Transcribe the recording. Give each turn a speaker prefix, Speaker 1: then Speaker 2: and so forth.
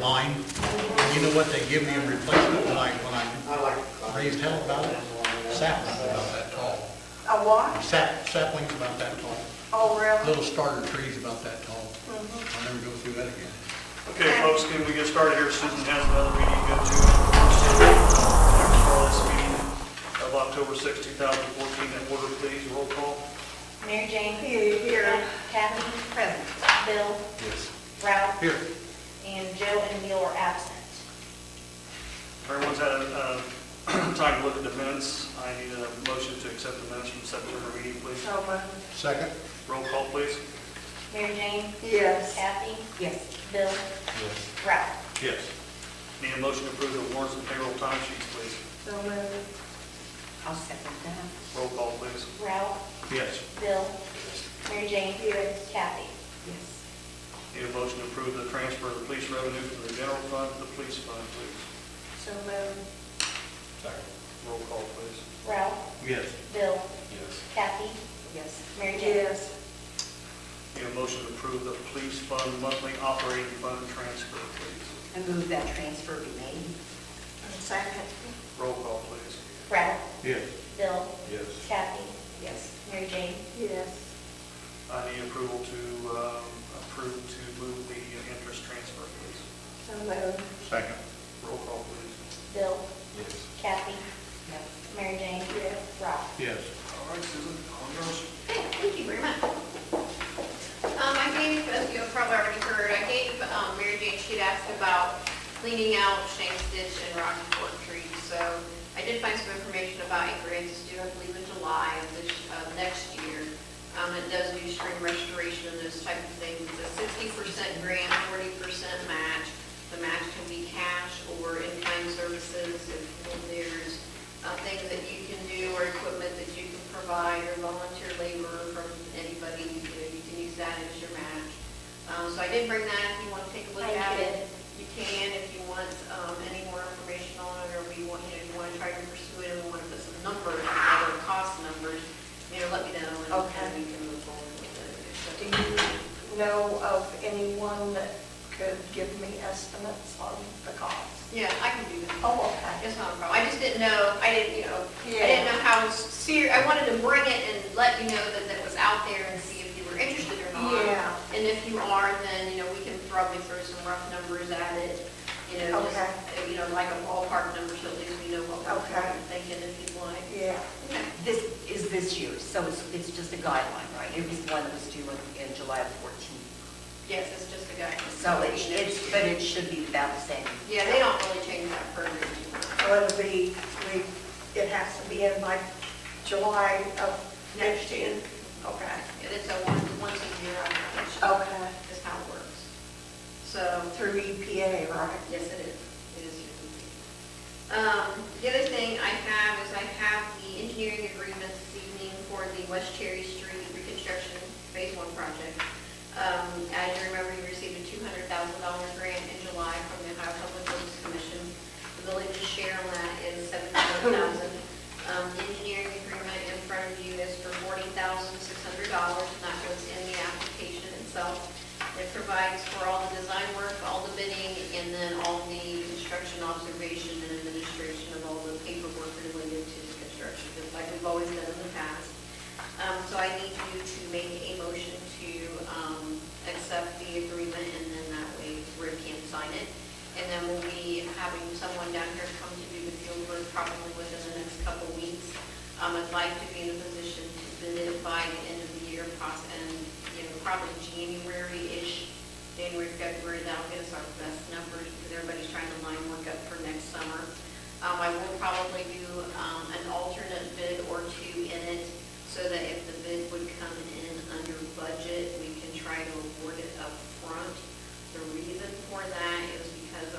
Speaker 1: line, and you know what they give me in replacement when I, when I raised hell about it? Saplings about that tall,
Speaker 2: A what?
Speaker 1: sap, saplings about that tall,
Speaker 2: Oh, really?
Speaker 1: little starter trees about that tall. I'll never go through that again.
Speaker 3: Okay, folks, can we get started here? Susan has another meeting to go to. Call uh, this meeting of October 6, 2014, in order, please, roll call.
Speaker 4: Mary Jane?
Speaker 2: Here, here.
Speaker 4: Kathy? Present. Bill?
Speaker 1: Yes.
Speaker 4: Ralph?
Speaker 1: Here,
Speaker 4: And Joe and Neil are absent.
Speaker 3: Everyone's had a uh, time to look at the minutes. I need a motion to accept the minutes from September meeting, please.
Speaker 2: So uh, moved.
Speaker 1: second?
Speaker 3: Roll call, please.
Speaker 4: Mary Jane?
Speaker 2: Yes.
Speaker 4: Kathy?
Speaker 2: Yes.
Speaker 4: Bill?
Speaker 1: Yes.
Speaker 4: Ralph?
Speaker 3: Yes. Need a motion to approve the warrants and payroll time sheets, please.
Speaker 2: So moved. I'll second that.
Speaker 3: Roll call, please.
Speaker 4: Ralph?
Speaker 3: Yes.
Speaker 4: Bill? Mary Jane? Kathy?
Speaker 2: Yes.
Speaker 3: Need a motion to approve the transfer of the police revenue from the general fund to the police fund, please.
Speaker 2: So uh, moved.
Speaker 3: Roll call, please.
Speaker 4: Ralph?
Speaker 1: Yes.
Speaker 4: Bill?
Speaker 1: Yes.
Speaker 4: Kathy?
Speaker 2: Yes.
Speaker 4: Mary Jane?
Speaker 2: Yes.
Speaker 3: Need a motion to approve the police fund monthly operating fund transfer, please.
Speaker 5: I move that transfer be made.
Speaker 2: Second.
Speaker 3: Roll call, please.
Speaker 4: Ralph?
Speaker 1: Yes.
Speaker 4: Bill?
Speaker 1: Yes.
Speaker 4: Kathy?
Speaker 5: Yes.
Speaker 4: Mary Jane?
Speaker 2: Yes.
Speaker 3: I need approval to, um, approve to move the interest transfer, please.
Speaker 2: So moved.
Speaker 1: Second?
Speaker 3: Roll call, please.
Speaker 4: Bill?
Speaker 1: Yes.
Speaker 4: Kathy?
Speaker 5: Yep.
Speaker 4: Mary Jane? Ralph?
Speaker 1: Yes.
Speaker 3: All right, Susan, on yours.
Speaker 6: Okay, thank you very much. Um, I gave, as you have probably already heard, I gave, um, Mary Jane, she'd asked about cleaning out Shane's Ditch and Rocky Fork trees. So I did find some information about acreage, it's due, I believe, in July of this, of next year. Um, it does do spring restoration and those type of things. It's a sixty percent grant, forty percent match. The match can be cash or in-kind services if there's uh, things that you can do or equipment that you can provide or volunteer labor from anybody, you know, you can use that as your match. Um, So I did bring that, if you want to take a look
Speaker 4: Thank
Speaker 6: at
Speaker 4: you.
Speaker 6: it, you can, if you want um, any more information on it, or if you want, you know, if you want to try to pursue it, and we want to put some numbers, together, cost numbers, you know, let me know, and
Speaker 2: Okay.
Speaker 6: and we can move forward with
Speaker 2: Do
Speaker 6: it.
Speaker 2: you know of anyone that could give me estimates on the cost?
Speaker 6: Yeah, I can do that.
Speaker 2: Oh, okay.
Speaker 6: It's not a problem. I just didn't know, I didn't, you know, I
Speaker 2: Yeah.
Speaker 6: didn't know how serious, I wanted to bring it and let you know that that was out there and see if you were interested or not.
Speaker 2: Yeah.
Speaker 6: And if you are, then, you know, we can probably throw some rough numbers at it, you know, just,
Speaker 2: Okay.
Speaker 6: uh, you know, like a ballpark number, so at least we know what we're
Speaker 2: Okay.
Speaker 6: thinking if you'd like.
Speaker 2: Yeah.
Speaker 6: Okay.
Speaker 5: This is this year, so it's, it's just a guideline, right? It was one that was due in, in July of 14.
Speaker 6: Yes, it's just a guide.
Speaker 5: So it's, it's, but it should be about the same.
Speaker 6: Yeah, they don't really change that program too much.
Speaker 2: So it'll be, we, it has to be in like July of next year? Okay.
Speaker 6: And It's a one- once a year, application
Speaker 2: Okay.
Speaker 6: is how it works. So,
Speaker 2: Through EPA, right?
Speaker 6: Yes, it is. It is. Um, The other thing I have is I have the engineering agreement this evening for the West Cherry Street reconstruction phase one project. Um, As you remember, you received a $200,000 grant in July from the Ohio Public Works Commission. The village's share on that is $700,000. Um, the Engineering agreement in front of you is for $40,600, and that goes in the application itself. It provides for all the design work, all the bidding, and then all the construction observation and administration of all the paperwork related to the construction, just like we've always done in the past. Um, So I need you to make a motion to um, accept the agreement, and then that way Rick can sign it. And then we'll be having someone down here come to do the field work probably within the next couple weeks. Um, I'd like to be in a position to bid it by the end of the year, poss- and, you know, probably January-ish, January, February, that'll get us our best numbers, because everybody's trying to line work up for next summer. Um, I will probably do, um, an alternate bid or two in it, so that if the bid would come in under budget, we can try to award it up front. The reason for that